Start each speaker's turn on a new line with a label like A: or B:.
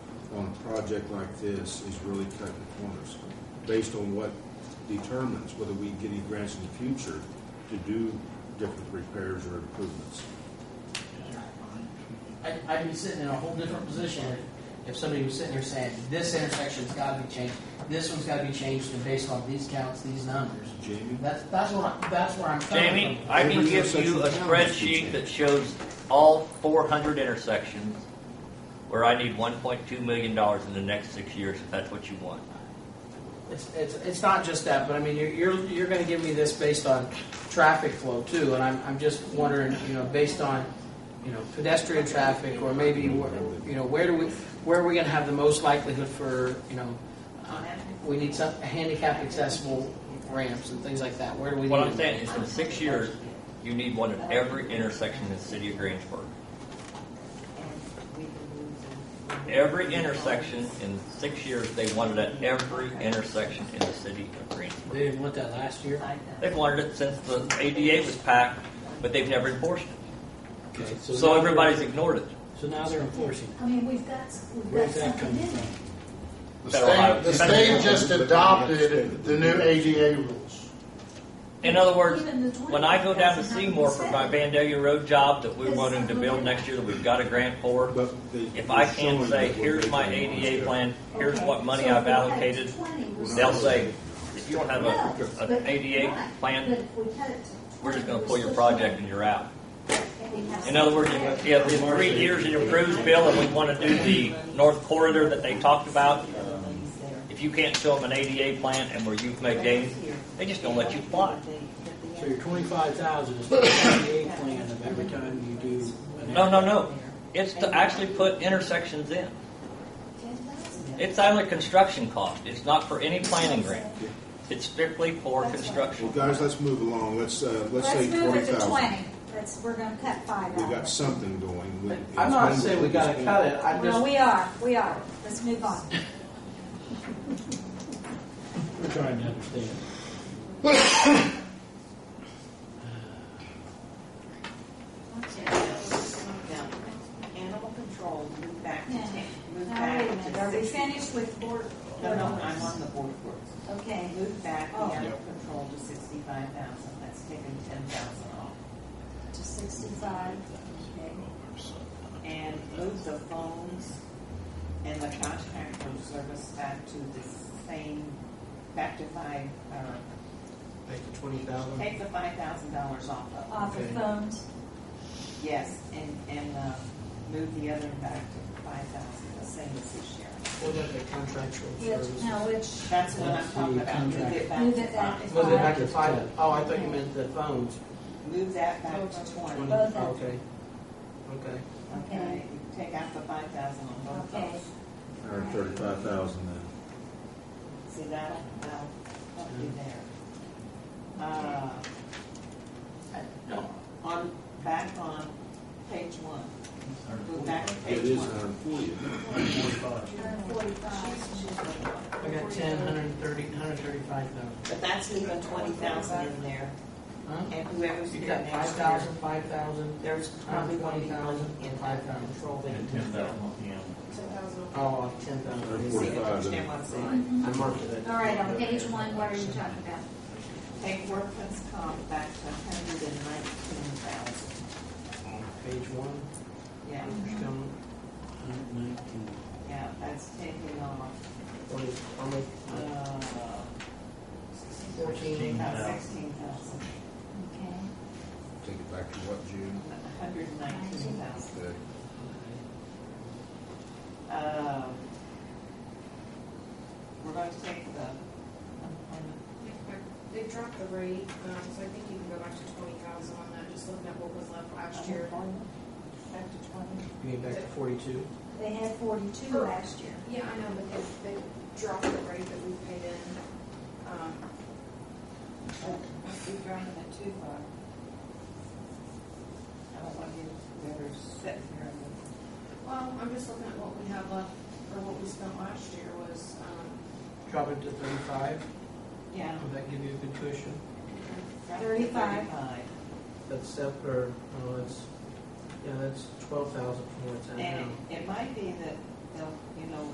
A: on a project like this is really cutting corners based on what determines whether we get any grants in the future to do different repairs or improvements.
B: I'd, I'd be sitting in a whole different position if, if somebody was sitting there saying, this intersection's gotta be changed, this one's gotta be changed, and based on these counts, these numbers.
A: Jamie?
B: That's, that's what I, that's where I'm coming from.
C: Jamie, I can give you a spreadsheet that shows all four hundred intersections where I need one point two million dollars in the next six years, if that's what you want.
B: It's, it's, it's not just that, but I mean, you're, you're, you're gonna give me this based on traffic flow too, and I'm, I'm just wondering, you know, based on, you know, pedestrian traffic, or maybe, where- you know, where do we, where are we gonna have the most likelihood for, you know, uh, we need some handicap accessible ramps and things like that, where do we?
C: What
B: need
C: I'm
B: it?
C: saying is in six years, you need one at every intersection in the city of Greensburg. Every intersection in six years, they wanted at every intersection in the city of Greensburg.
B: They didn't want that last year?
C: They've wanted it since the ADA was packed, but they've never enforced it.
B: Okay,
C: So
B: now
C: everybody's
B: they're-
C: ignored it.
B: So now they're enforcing it.
D: I mean, we've got, we've got
B: Where's that
D: something
B: coming
D: in it.
E: The
C: Federal highway.
E: state, the state just adopted the new ADA rules.
C: In other words,
D: Even the
C: when I go down to
D: 20,000
C: Seymour for my
D: happens
C: Vandalia Road job that we're wanting to build next year that we've got a grant for,
A: But they-
C: if I
A: they're
C: can't
A: showing
C: say,
A: that we're
C: here's my
A: making ones
C: ADA
A: there.
C: plan, here's
D: Okay,
C: what money
D: so uh,
C: I've
D: if we had
C: allocated,
D: 20, we're
C: they'll
D: not-
C: say, if you don't have
D: No,
C: a,
D: but-
C: an ADA
D: right, but
C: plan,
D: if we cut it to
C: we're just gonna
D: 20,
C: pull your
D: we're
C: project
D: still-
C: and you're out.
D: and we have
C: In other words,
D: something
C: if
D: there.
C: if in three years it improves, Bill, and we want to do the north corridor that they talked about, if you can't show them an ADA plan and where you've made gains, they just don't let you apply.
B: So your twenty-five thousand is the twenty-eight plan of every time you do. an-
C: No, no, no. It's to actually put intersections in.
D: 10,000.
C: It's only construction cost. It's not for any planning grant. It's strictly for
A: Well,
C: construction.
A: guys, let's move along. Let's, uh, let's
D: Let's
A: say
D: move
A: twenty
D: it to
A: thousand.
D: twenty. Let's, we're gonna cut five
A: We
D: out.
A: got something going. We-
B: I'm not saying we gotta cut it, I'm
D: Well,
B: just,
D: we are, we are. Let's move on.
B: we're trying to understand.
F: Animal control, move back to
D: Yeah.
F: ten, move
D: Now, wait a
F: back
D: minute,
F: to
D: are we
F: six.
D: finished with board?
F: No, no, I'm on the board for it.
D: Okay,
F: Move back
D: Oh.
F: the animal control to sixty-five thousand, that's taken ten thousand off.
D: to sixty-five.
F: Okay. And move the phones and the contract from service back to the same, back to five, uh,
B: Make the twenty thousand.
F: take the five thousand dollars off of. it.
D: Off the
B: Okay.
D: phones.
F: Yes, and, and, uh, move the other back to five thousand, the same as this year.
B: What about the contractual
D: Which,
B: services?
D: now which,
F: That's what I'm talking about, move it back
D: Move
F: to
D: it back.
F: five.
B: Was it back to five? Oh, I thought you meant the phones.
F: Move that back to
B: Twenty.
F: twenty,
D: Both of
B: Okay. Okay.
F: okay? Take out the five thousand on both
D: okay,
F: those.
A: Hundred and thirty-five thousand then.
F: See, that'll, that'll help
A: Mm.
F: you there. Uh, I- no, on, back on page one. Move back to
A: It
F: page
A: is
F: one.
A: hundred and forty, isn't it?
D: hundred forty-five.
B: I got ten, hundred and thirty, hundred and thirty-five thousand.
F: But that's leaving twenty thousand in there,
B: Huh?
F: and whoever's
B: You
F: here
B: got five
F: next year.
B: thousand, five thousand.
F: There's probably one
B: Twenty thousand
F: in
B: and five
F: five
B: thousand.
F: control that you can do.
B: Oh, ten thousand.
F: See, understand what I'm saying?
B: I marked it.
D: Mm-hmm. All right, on page one, what are you talking about?
F: Take workman's comp back to hundred and nineteen thousand.
B: Page one,
F: Yeah,
B: it's down, hundred and nineteen.
F: yeah, that's taking off,
B: What is, how much?
F: uh,
B: Fourteen.
F: about sixteen thousand,
D: Okay.
A: Take it back to what, June?
F: a hundred and nineteen thousand.
A: Okay.
F: Um, we're going to take the, um,
G: They dropped the rate, um, so I think you can go back to twenty thousand on that, just looking at what was left last year.
D: Back to twenty.
B: You mean back to forty-two?
D: They had forty-two last year.
G: Yeah, I know, but they, they dropped the rate that we paid in, um,
F: we dropped it too far. I don't want you to ever sit here and
G: well, I'm just looking at what we had left, or what we spent last year was, um,
B: Drop it to thirty-five,
F: Yeah.
B: would that give you a good cushion?
D: Thirty-five.
B: That's separate, or, oh, that's, yeah, that's twelve thousand from what's at now.
F: And it might be that they'll, you know,